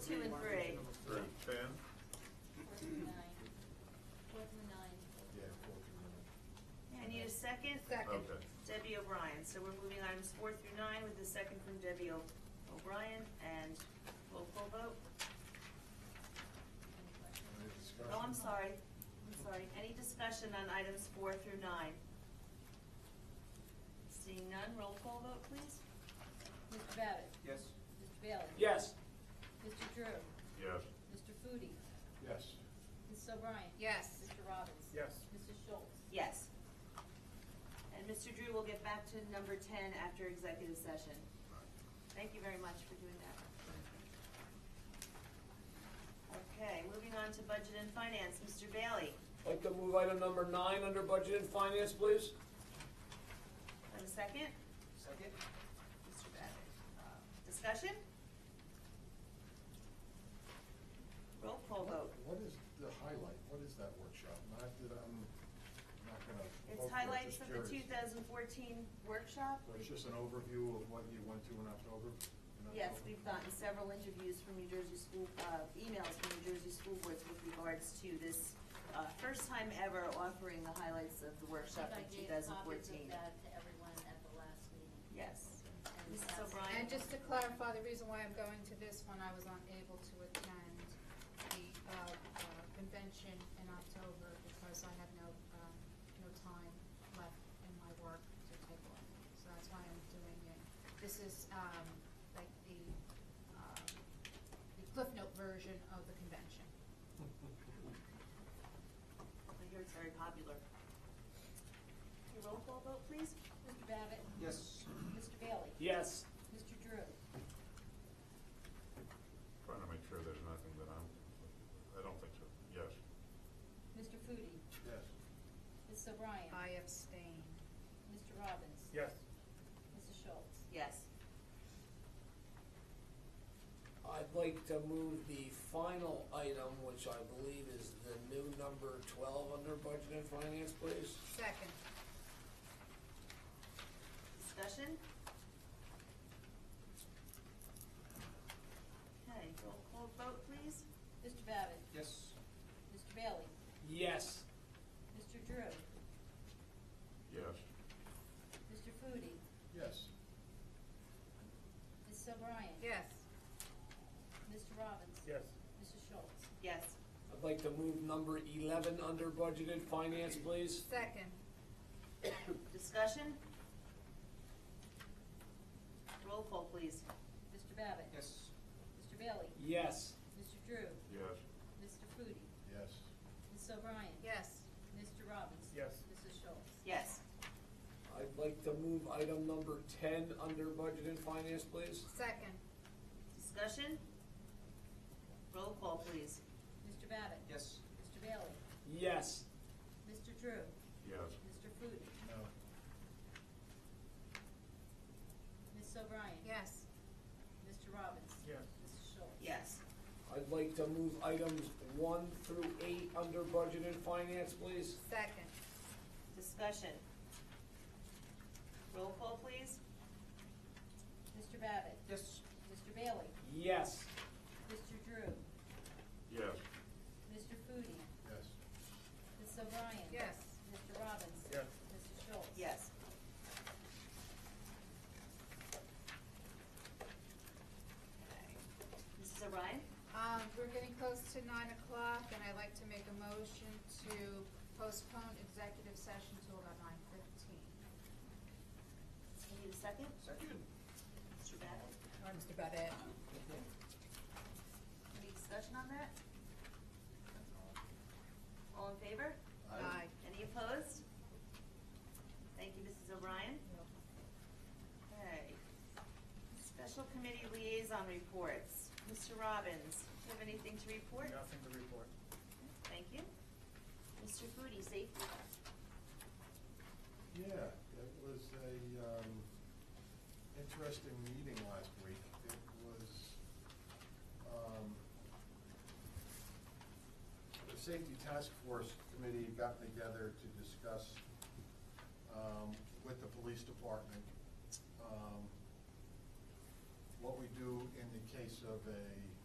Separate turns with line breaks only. two and three.
Three, ten?
Four through nine. Four through nine.
Yeah, four through
I need a second.
nine. Okay.
Debbie O'Brien, so we're moving items four through nine with the second from Debbie O- O'Brien and roll call vote.
Any questions?
Any discussion?
Oh, I'm sorry, I'm sorry. Any discussion on items four through nine? Seeing none, roll call vote, please.
Mr. Babbitt?
Yes.
Mr. Bailey?
Yes.
Mr. Drew?
Yes.
Mr. Foodie?
Yes.
Mrs. O'Brien?
Yes.
Mr. Robbins?
Yes.
Mrs. Schultz?
Yes. And Mr. Drew will get back to number ten after executive session. Thank you very much for doing that. Okay, moving on to budget and finance, Mr. Bailey,
I'd like to move item number nine under budget and finance, please.
have a second?
Second.
Mr. Babbitt, uh, discussion? Roll call vote.
What is the highlight, what is that workshop? Not that I'm, I'm not gonna. vote for
It's
it,
highlights
just
of the two
curious.
thousand fourteen workshop.
So It's just an overview of what you went to in October? in
Yes,
October?
we've gotten several interviews from New Jersey school, uh, emails from New Jersey school boards with regards to this, uh, first time ever offering the highlights of the workshop in two thousand
I gave copies of
fourteen.
that to everyone at the last meeting.
Yes.
And
Mrs.
that's-
O'Brien?
And just to clarify, the reason why I'm going to this one, I was unable to attend the, uh, uh, convention in October because I had no, um, no time left in my work to take on. So that's why I'm doing it. This is, um, like the, um, the Cliff Note version of the convention.
I hear it's very popular. Okay, Roll call vote, please?
Mr. Babbitt?
Yes.
Mr. Bailey?
Yes.
Mr. Drew?
Trying to make sure there's nothing that I'm, I don't think so, yes.
Mr. Foodie?
Yes.
Mrs. O'Brien?
I abstain.
Mr. Robbins?
Yes.
Mrs. Schultz?
Yes.
I'd like to move the final item, which I believe is the new number twelve under budget and finance, please.
Second.
Discussion? Okay, roll call vote, please?
Mr. Babbitt?
Yes.
Mr. Bailey?
Yes.
Mr. Drew?
Yes,
Mr. Foodie?
Yes.
Mrs. O'Brien?
Yes.
Mr. Robbins?
Yes.
Mrs. Schultz?
Yes.
I'd like to move number eleven under budget and finance, please.
Second.
Discussion? Roll call, please?
Mr. Babbitt?
Yes.
Mr. Bailey?
Yes.
Mr. Drew?
yes,
Mr. Foodie?
Yes.
Mrs. O'Brien?
Yes.
Mr. Robbins?
Yes.
Mrs. Schultz?
Yes.
I'd like to move item number ten under budget and finance, please.
Second.
Discussion? Roll call, please.
Mr. Babbitt?
Yes.
Mr. Bailey?
Yes.
Mr. Drew?
yes,
Mr. Foodie?
No.
Ms. O'Brien?
Yes.
Mr. Robbins?
Yes.
Mrs. Schultz?
Yes.
I'd like to move items one through eight under budget and finance, please.
Second.
Discussion? Roll call, please?
Mr. Babbitt?
Yes.
Mr. Bailey?
Yes.
Mr. Drew?
yes,
Mr. Foodie?
Yes.
Ms. O'Brien?
Yes.
Mr. Robbins?
Yes.
Mrs. Schultz?
Yes. Okay. Mrs. O'Brien?
Um, we're getting close to nine o'clock, and I'd like to make a motion to postpone executive session till about nine fifteen.
I need a second? Second. Mr. Babbitt?
Or Mr. Babbitt?
Any discussion on that? All in favor?
Aye.
Any opposed? Thank you, Mrs. O'Brien. Okay. Special committee liaison reports. Mr. Robbins, do you have anything to report?
Nothing to report.
Thank you. Mr. Foodie, safety?
Yeah, it was a, um, interesting meeting last week. It was, um, the Safety Task Force Committee got together to discuss, um, with the police department, um, what we do in the case of a